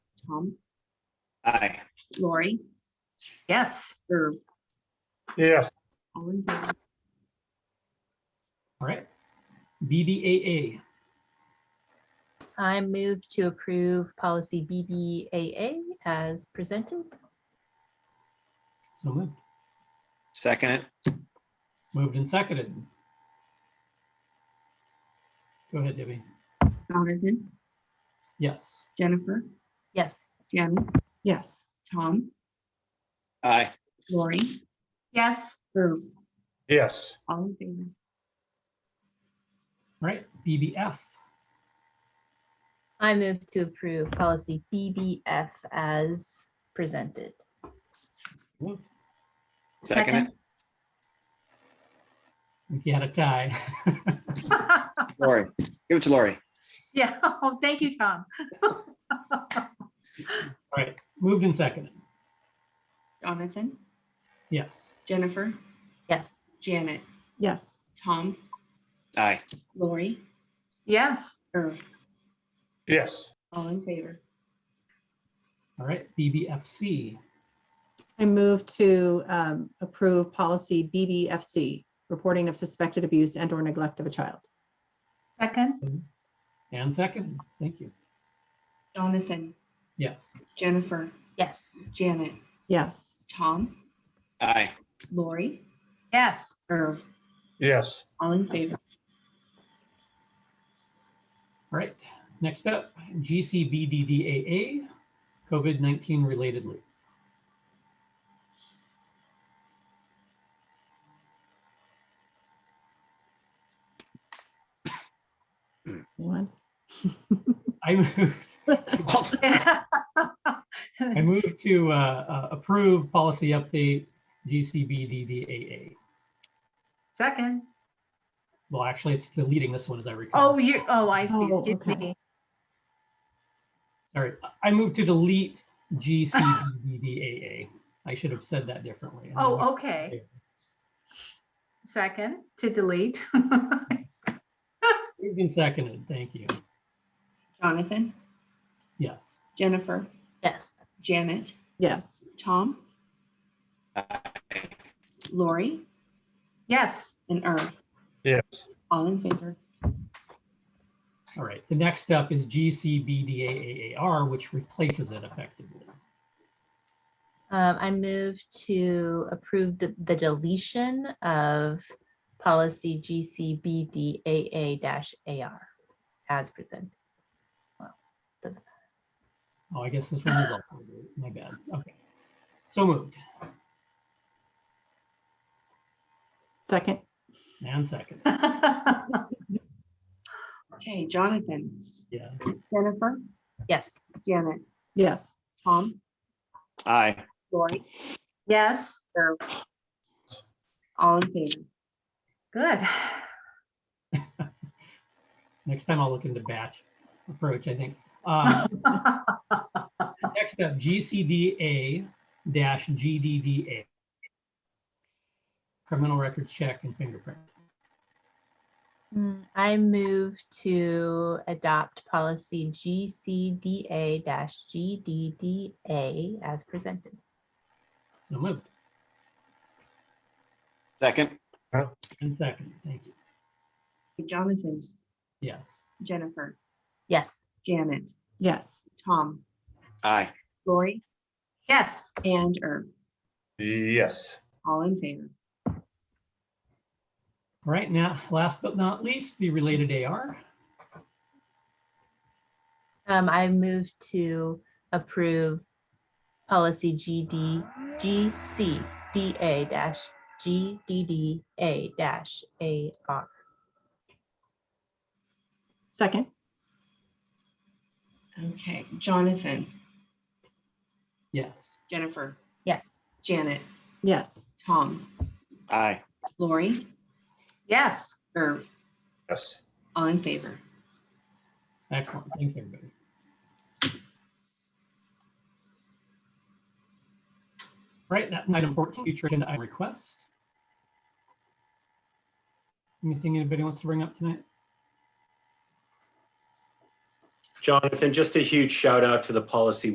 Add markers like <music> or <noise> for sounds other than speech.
Tom, Aye. Lori, Yes. or Yes, all in favor? All right. BBAA, I move to approve policy BBAA as presented. so moved, Second it. moved and seconded. Go ahead, Debbie. Jonathan, Yes, Jennifer, Yes. Jen, yes, Tom, Aye. Lori, Yes. or yes, all in favor? All right. BBF, I move to approve policy BBF as presented. moved. Second it. I think you had a tie. <laughs> Lori. Give it to Lori. <laughs> Yeah, oh, thank you, Tom. All right, moved and seconded. Jonathan, Yes, Jennifer, Yes. Janet, yes. Tom, Aye. Lori, Yes, or yes, all in favor? all right, BBFC, I move to um, approve policy BBFC, reporting of suspected abuse and or neglect of a child. second, and seconded. Thank you. Jonathan, Yes, Jennifer, Yes. Janet, Yes, Tom, Aye. Lori, yes, <laughs> or yes, all in favor? all right. Next up, GCBDDAA, COVID-19 related leave. anyone? I <laughs> move Well, I move to uh, uh, approve policy update GCBDDAA. second. Well, actually, it's deleting this one as I recall. Oh, you, oh, I see, Oh, excuse okay. me. Sorry, I- I move to delete E GCBDDAA. I should have said that differently. Oh, okay. Second, to delete. <laughs> Moved and seconded, thank you. Jonathan, Yes, Jennifer, Yes. Janet, Yes, Tom, aye. Lori, Yes, <laughs> and Irv, yes, all in favor? all right. The next step is GCBDAAR, which replaces it effectively. Um, I move to approve the, the deletion of policy GCBDAA-AR as presented. Oh, I guess this one is, also deleted. my bad, okay. So moved second, and seconded, Okay, Jonathan, yeah. Jennifer, Yes. Janet, yes, Tom, Aye. Lori, yes, or all in favor? good. <laughs> Next time I'll look into batch approach, I think. Um, Next up, GCDA dash GDDA. Criminal records check and fingerprint. Mm, I move to adopt policy GCDA-GDDA as presented. So moved Second. and second. Thank you. Jonathan, Yes. Jennifer, Yes. Janet, yes, Tom, Aye. Lori, Yes, and Irv, yes, all in favor? All right, now, last but not least, the related AR. Um, I move to approve policy GD, GCDA dash GDDA dash AR. second, Okay, Jonathan, Yes. Jennifer, Yes. Janet, yes, Tom, Aye. Lori, yes, Irv, yes. all in favor? Excellent. Thanks, everybody. All Right, that item 14, future agenda item request. Anything anybody wants to bring up tonight? Jonathan, just a huge shout out to the policy